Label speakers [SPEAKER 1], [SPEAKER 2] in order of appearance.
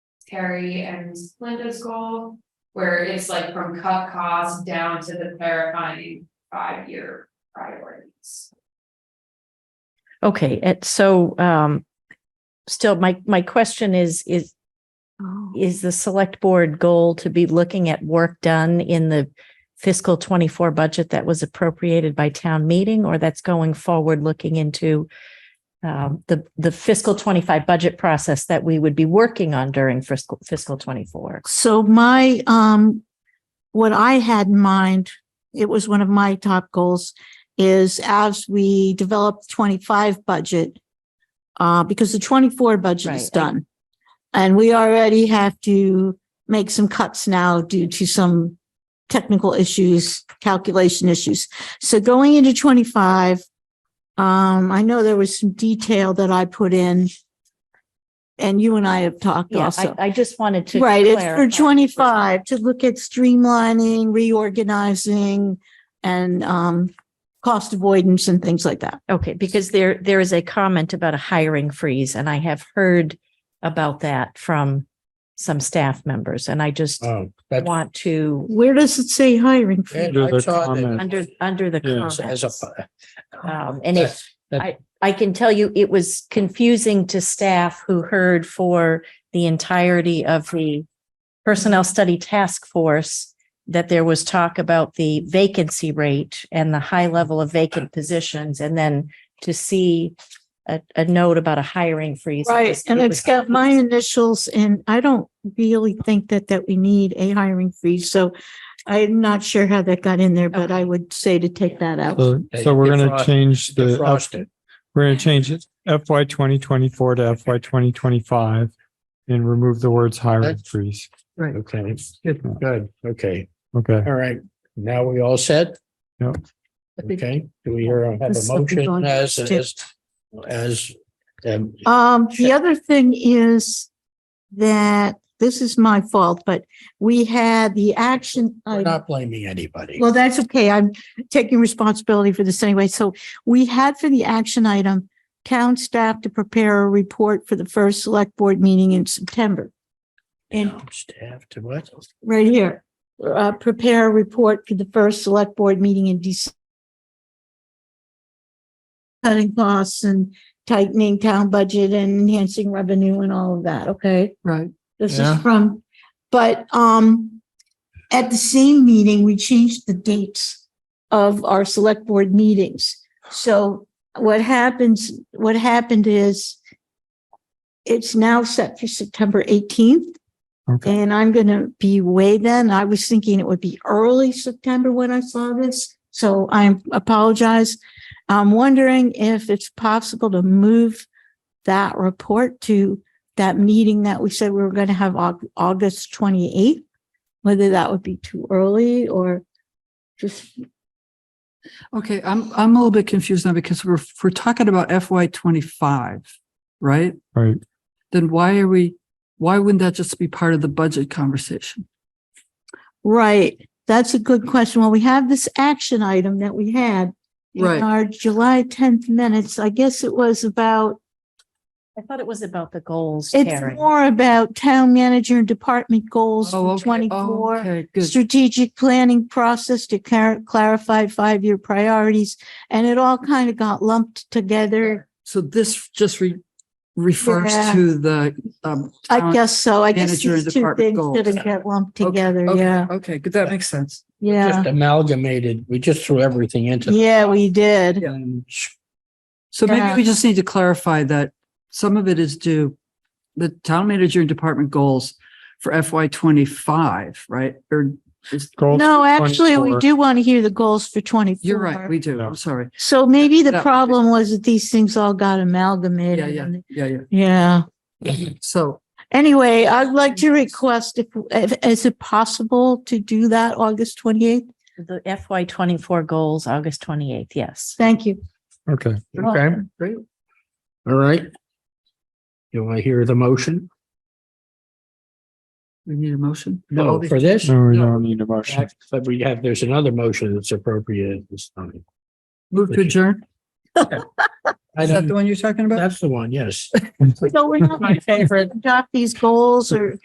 [SPEAKER 1] Terry and Linda's goal. Where it's like from cut costs down to the clarifying five-year priorities.
[SPEAKER 2] Okay, and so um still my my question is is
[SPEAKER 3] Oh.
[SPEAKER 2] is the select board goal to be looking at work done in the fiscal 24 budget that was appropriated by town meeting or that's going forward looking into um the the fiscal 25 budget process that we would be working on during fiscal fiscal 24?
[SPEAKER 3] So my, um, what I had in mind, it was one of my top goals, is as we develop twenty-five budget, uh, because the twenty-four budget
[SPEAKER 2] Right,
[SPEAKER 3] is
[SPEAKER 2] I-
[SPEAKER 3] done. And we already have to make some cuts now due to some technical issues, calculation issues. So going into twenty-five, um, I know there was some detail that I put in. And you and I have talked
[SPEAKER 2] Yeah,
[SPEAKER 3] also.
[SPEAKER 2] I I just wanted to
[SPEAKER 3] Right, it's for
[SPEAKER 2] clarify.
[SPEAKER 3] twenty-five to look at streamlining, reorganizing and um cost avoidance and things like that.
[SPEAKER 2] Okay, because there, there is a comment about a hiring freeze and I have heard about that from some staff members and I just
[SPEAKER 4] Oh, that's
[SPEAKER 2] want to,
[SPEAKER 3] Where does it say hiring? freeze?
[SPEAKER 4] Andrew,
[SPEAKER 5] Under the
[SPEAKER 4] I saw that
[SPEAKER 5] comment.
[SPEAKER 2] under, under the
[SPEAKER 5] Yes,
[SPEAKER 4] as
[SPEAKER 2] comments.
[SPEAKER 4] a-
[SPEAKER 2] Um, and it,
[SPEAKER 4] That's- that-
[SPEAKER 2] I can tell you it was confusing to staff who heard for the entirety of the Personnel Study Task Force that there was talk about the vacancy rate and the high level of vacant positions and then to see a, a note about a hiring freeze. it
[SPEAKER 3] Right,
[SPEAKER 2] was-
[SPEAKER 3] and
[SPEAKER 2] it
[SPEAKER 3] it's
[SPEAKER 2] was
[SPEAKER 3] got my initials and I don't really think that that we need a hiring freeze, so I'm not sure how that got in there, but I would say to take that out.
[SPEAKER 5] So,
[SPEAKER 4] They
[SPEAKER 5] so we're gonna
[SPEAKER 4] defrost-
[SPEAKER 5] change the, F-
[SPEAKER 4] defrosted.
[SPEAKER 5] we're gonna change it FY twenty twenty-four to FY twenty twenty-five and remove the words hiring
[SPEAKER 4] That's-
[SPEAKER 5] freeze.
[SPEAKER 4] Okay, good, good, okay,
[SPEAKER 5] Okay,
[SPEAKER 4] all right, now we all set?
[SPEAKER 5] Yep.
[SPEAKER 4] Okay, do we hear, have a
[SPEAKER 3] This will be
[SPEAKER 4] motion
[SPEAKER 3] going
[SPEAKER 4] as,
[SPEAKER 3] to-
[SPEAKER 4] as, as, um,
[SPEAKER 3] Um, the
[SPEAKER 4] Sure.
[SPEAKER 3] other thing is that, this is my fault, but we had the action.
[SPEAKER 4] we're
[SPEAKER 3] item-
[SPEAKER 4] not blaming anybody.
[SPEAKER 3] Well, that's okay. I'm taking responsibility for this anyway. So we had for the action item, town staff to prepare a report for the first select board meeting in September, and-
[SPEAKER 4] Town Staff to what?
[SPEAKER 3] right here. Uh, prepare a report for the first select board meeting in December. Cutting costs and tightening town budget and enhancing revenue and all of that, okay?
[SPEAKER 5] Right.
[SPEAKER 3] This is
[SPEAKER 5] Yeah.
[SPEAKER 3] from, but, um, at the same meeting, we changed the dates of our select board meetings. So what happens, what happened is it's now set for September eighteenth.
[SPEAKER 5] okay.
[SPEAKER 3] And I'm gonna be away then. I was thinking it would be early September when I saw this, so I apologize. I'm wondering if it's possible to move that report to that meeting that we said we were gonna have Au- August twenty-eighth. Whether that would be too early or just,
[SPEAKER 6] Okay, I'm, I'm a little bit confused now because we're, if we're talking about FY twenty-five, right?
[SPEAKER 5] Right.
[SPEAKER 6] Then why are we, why wouldn't that just be part of the budget conversation?
[SPEAKER 3] right, that's a good question. Well, we have this action item that we had. in
[SPEAKER 6] Right.
[SPEAKER 3] Our July tenth minutes, I guess it was about
[SPEAKER 2] I thought it was about the goals,
[SPEAKER 3] It's
[SPEAKER 2] Karen.
[SPEAKER 3] more about town manager and department goals
[SPEAKER 6] Oh,
[SPEAKER 3] for
[SPEAKER 6] okay. Oh,
[SPEAKER 3] twenty-four.
[SPEAKER 6] Okay, good.
[SPEAKER 3] Strategic planning process to clar- clarify five-year priorities, and it all kind of got lumped together.
[SPEAKER 6] So this just re- refers
[SPEAKER 3] Yeah.
[SPEAKER 6] to the, um.
[SPEAKER 3] I
[SPEAKER 6] town-
[SPEAKER 3] guess so. I guess
[SPEAKER 6] Manager and
[SPEAKER 3] these two
[SPEAKER 6] department
[SPEAKER 3] things
[SPEAKER 6] goals.
[SPEAKER 3] didn't get lumped
[SPEAKER 6] Okay,
[SPEAKER 3] together,
[SPEAKER 6] okay,
[SPEAKER 3] yeah,
[SPEAKER 6] Okay, good, that makes sense.
[SPEAKER 3] yeah.
[SPEAKER 4] Just amalgamated, we just threw everything into.
[SPEAKER 3] Yeah, we did.
[SPEAKER 4] And
[SPEAKER 6] So maybe we
[SPEAKER 3] Yeah.
[SPEAKER 6] just need to clarify that some of it is due the town manager and department goals for FY twenty-five, right? Or is,
[SPEAKER 5] Goals
[SPEAKER 3] No, actually, we
[SPEAKER 5] 24.
[SPEAKER 3] do want to hear the goals for twenty-four.
[SPEAKER 6] you're right, we do,
[SPEAKER 5] Yeah.
[SPEAKER 6] I'm sorry.
[SPEAKER 3] So maybe the
[SPEAKER 6] Yeah.
[SPEAKER 3] problem was that these things all got
[SPEAKER 6] Yeah,
[SPEAKER 3] amalgamated.
[SPEAKER 6] yeah,
[SPEAKER 3] and-
[SPEAKER 6] yeah, yeah.
[SPEAKER 3] Yeah.
[SPEAKER 6] So
[SPEAKER 3] Anyway, I'd like to request if, if, is it possible to do that August twenty-eighth?
[SPEAKER 2] The FY twenty-four goals, August twenty-eighth, yes.
[SPEAKER 3] Thank you.
[SPEAKER 5] Okay,
[SPEAKER 4] Okay,
[SPEAKER 6] Great.
[SPEAKER 4] all right. Do I hear the motion?
[SPEAKER 6] we need a motion. for all
[SPEAKER 4] No,
[SPEAKER 6] these-
[SPEAKER 4] for this?
[SPEAKER 5] no, we don't need a motion.
[SPEAKER 4] But we have, there's another motion that's appropriate at this time.
[SPEAKER 6] Move to adjourn.
[SPEAKER 4] I
[SPEAKER 6] Is that
[SPEAKER 4] don't,
[SPEAKER 6] the one you're talking about?
[SPEAKER 4] that's the one, yes.
[SPEAKER 3] So we're not
[SPEAKER 4] My favorite.
[SPEAKER 3] adopt these goals or